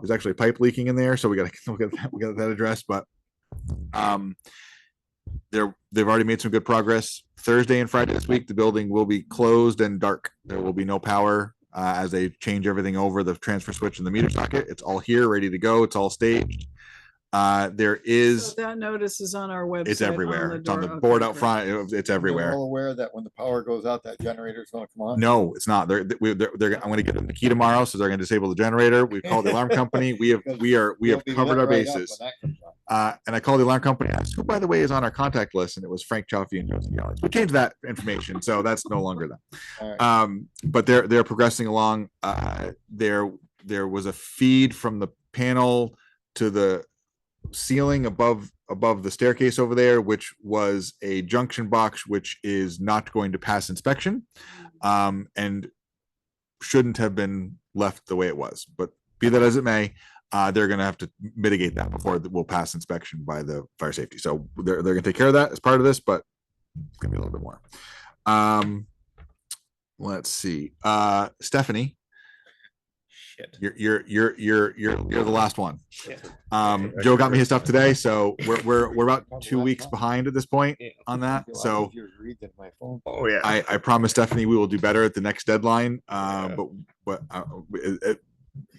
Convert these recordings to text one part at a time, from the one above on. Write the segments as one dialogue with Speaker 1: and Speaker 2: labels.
Speaker 1: There's actually a pipe leaking in there, so we gotta, we gotta, we gotta get that addressed, but um, they're, they've already made some good progress. Thursday and Friday this week, the building will be closed and dark. There will be no power uh, as they change everything over the transfer switch and the meter socket. It's all here, ready to go. It's all staged. Uh, there
Speaker 2: So
Speaker 1: is,
Speaker 2: That notice is on our website.
Speaker 1: it's everywhere. It's on the
Speaker 2: door.
Speaker 1: board
Speaker 2: Okay,
Speaker 1: out
Speaker 2: great.
Speaker 1: front. It- It's
Speaker 3: They're
Speaker 1: everywhere.
Speaker 3: All aware that when the power goes out, that generator is gonna come on.
Speaker 1: No, it's not. They're, we- they're, they're, I'm gonna get them the key tomorrow, so they're gonna disable the generator. We've called the alarm company. We have, we are, we
Speaker 3: They'll
Speaker 1: have
Speaker 3: be
Speaker 1: covered
Speaker 3: lit
Speaker 1: our
Speaker 3: right up when
Speaker 1: bases.
Speaker 3: that comes on.
Speaker 1: Uh, and I called the alarm company, and asked who, by the way, is on our contact list, and it was Frank Chaffee and Joseph Yellis. We changed that information, so that's no longer them.
Speaker 3: All right.
Speaker 1: Um, but they're they're progressing along. Uh, there there was a feed from the panel to the ceiling above above the staircase over there, which was a junction box, which is not going to pass inspection, um, and shouldn't have been left the way it was. But be that as it may, uh, they're going to have to mitigate that before th- we'll pass inspection by the fire safety. So they're, they're going to take care of that as part of this, but it's going to be a little bit more. Um, let's see. Uh, Stephanie,
Speaker 4: Shit.
Speaker 1: you're, you're, you're, you're, you're, you're the last one.
Speaker 4: Shit.
Speaker 1: Um, Joe got me his stuff today, so we're, we're, we're about two weeks behind at this point
Speaker 4: Yeah.
Speaker 1: on
Speaker 3: Be
Speaker 1: that.
Speaker 3: a lot
Speaker 1: So
Speaker 3: easier to read than my phone.
Speaker 4: Oh, yeah.
Speaker 1: I, I promise Stephanie, we will do better at the next deadline. Uh,
Speaker 4: Yeah.
Speaker 1: but, but, uh, it- it-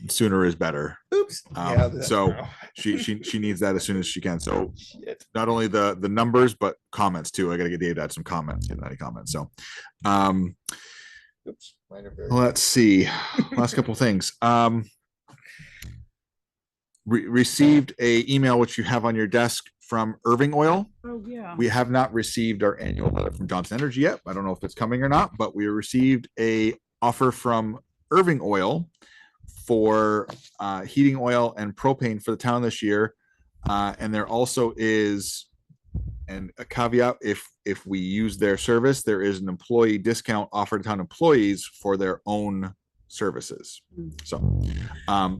Speaker 1: sooner is better.
Speaker 4: Oops.
Speaker 1: Um,
Speaker 4: Yeah, that-
Speaker 1: so
Speaker 4: no.
Speaker 1: She, she, she needs that as soon as she can. So
Speaker 4: Shit.
Speaker 1: not only the the numbers but comments too. I gotta get Dave to add some comments, get any comments. So, um,
Speaker 3: Oops, mine are very-
Speaker 1: let's see. Last couple things. Um, re- received a email which you have on your desk from Irving Oil.
Speaker 2: Oh, yeah.
Speaker 1: We have not received our annual letter from Johnson Energy yet. I don't know if it's coming or not, but we received a offer from Irving Oil for uh, heating oil and propane for the town this year. Uh, and there also is, and a caveat, if if we use their service, there is an employee discount offered to town employees for their own services. So, um,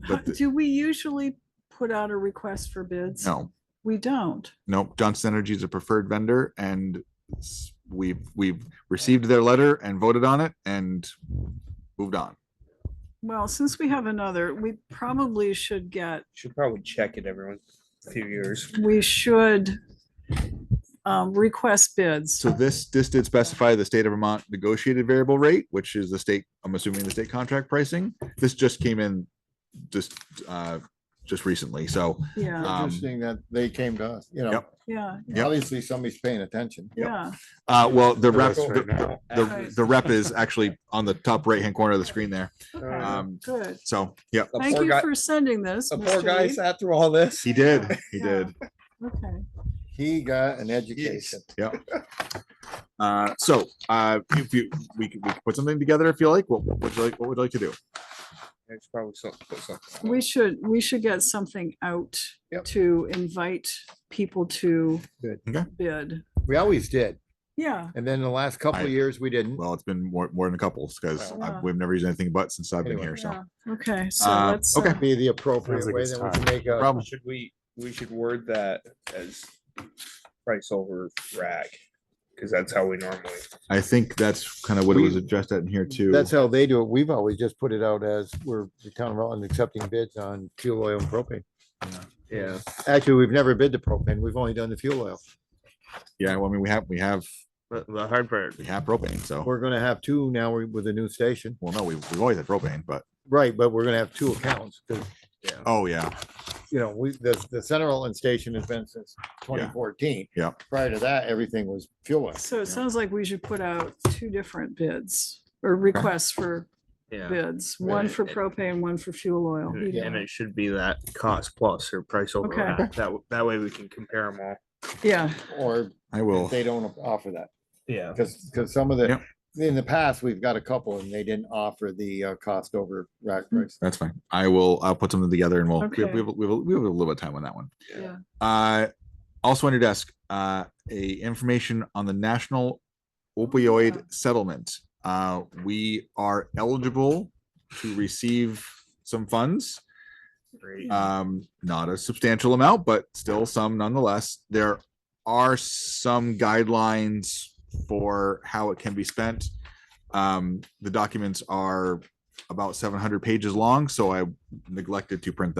Speaker 2: How-
Speaker 1: but the-
Speaker 2: Do we usually put out a request for bids?
Speaker 1: no,
Speaker 2: We don't.
Speaker 1: Nope, Johnson Energy is a preferred vendor and s- we've, we've received their letter and voted on it and moved on.
Speaker 2: Well, since we have another, we probably should get,
Speaker 4: Should probably check it every few years.
Speaker 2: we should um, request bids.
Speaker 1: So this, this did specify the state of Vermont negotiated variable rate, which is the state, I'm assuming the state contract pricing. This just came in just, uh, just recently. So,
Speaker 2: Yeah,
Speaker 1: um,
Speaker 3: Interesting that they came to us, you know,
Speaker 1: Yep.
Speaker 2: yeah,
Speaker 1: Yep.
Speaker 3: obviously somebody's paying attention.
Speaker 2: yeah.
Speaker 1: uh, well, the
Speaker 4: To
Speaker 1: rep,
Speaker 4: us Oh, right
Speaker 1: the,
Speaker 4: now.
Speaker 1: the- the rep is actually on the top right-hand corner of the screen there.
Speaker 2: Okay,
Speaker 1: Um,
Speaker 2: Good.
Speaker 1: so, yeah,
Speaker 4: The
Speaker 2: Thank
Speaker 4: poor
Speaker 2: you
Speaker 4: guy-
Speaker 2: for sending this.
Speaker 4: the poor
Speaker 2: Mr.
Speaker 4: guy
Speaker 2: Reed.
Speaker 4: sat through all this.
Speaker 1: he did, he
Speaker 2: Yeah.
Speaker 1: did.
Speaker 2: Okay.
Speaker 3: He got an education.
Speaker 1: Uh, so, uh, if you, we could, we could put something together if you like, what, what would you like, what would you like to do?
Speaker 4: It's probably something, put something.
Speaker 2: We should, we should get something out
Speaker 3: Yep.
Speaker 2: to invite people to
Speaker 3: Good.
Speaker 1: Okay.
Speaker 2: bid.
Speaker 3: We always did.
Speaker 2: Yeah,
Speaker 3: And then the last couple of
Speaker 1: I-
Speaker 3: years, we didn't.
Speaker 1: Well, it's been more, more than a couple, because
Speaker 2: Wow. Yeah.
Speaker 1: we've never used anything but since I've been
Speaker 3: Anyway.
Speaker 1: here, so.
Speaker 2: yeah. Okay, so
Speaker 1: Uh,
Speaker 2: let's.
Speaker 1: okay.
Speaker 2: uh,
Speaker 3: Be the appropriate
Speaker 5: Sounds like
Speaker 3: way
Speaker 5: it's
Speaker 3: that we can make a,
Speaker 1: Problem.
Speaker 4: Should we, we should word that as price over rag, because that's how we normally.
Speaker 1: I think that's kind of what it was
Speaker 3: We-
Speaker 1: addressed at in here too.
Speaker 3: that's how they do it. We've always just put it out as we're the town of Rutland accepting bids on fuel oil and propane. Yeah, actually, we've never bid the propane. We've only done the fuel oil.
Speaker 1: Yeah, well, I mean, we have, we have,
Speaker 5: But the hard part,
Speaker 1: we have propane, so,
Speaker 3: We're gonna have two now we- with a new station.
Speaker 1: well, no, we, we've always had propane, but,
Speaker 3: Right, but we're gonna have two accounts because,
Speaker 1: oh, yeah,
Speaker 3: you know, we, the, the Center Rutland Station has been since twenty fourteen.
Speaker 1: Yeah.
Speaker 3: Prior to that, everything was fuel oil.
Speaker 2: So it sounds like we should put out two different bids or requests for
Speaker 5: yeah,
Speaker 2: bids, one
Speaker 5: Right.
Speaker 2: for propane, one for fuel oil.
Speaker 5: and
Speaker 2: heating
Speaker 5: and
Speaker 2: oil.
Speaker 5: it should be that cost plus or price over.
Speaker 2: Okay.
Speaker 5: rack. That, w- that way we can compare them all.
Speaker 2: Yeah,
Speaker 3: Or
Speaker 1: I
Speaker 3: if
Speaker 1: will,
Speaker 3: they don't offer that.
Speaker 5: Yeah.
Speaker 3: Because, because some of the,
Speaker 1: Yep.
Speaker 3: in the past, we've got a couple and they didn't offer the uh, cost over rack price.
Speaker 1: that's fine. I will, I'll put something together and we'll, we have,
Speaker 2: Okay.
Speaker 1: we have, we have we have a little bit of time on that one.
Speaker 2: yeah.
Speaker 1: Uh, also on your desk, uh, a information on the National
Speaker 2: Oh,
Speaker 1: Opioid Settlement. Uh, we are eligible to receive some funds.
Speaker 4: Mm-hmm.
Speaker 5: Great.
Speaker 1: Um, not a substantial amount, but still some nonetheless. There are some guidelines for how it can be spent. Um, the documents are about seven hundred pages long, so I neglected to print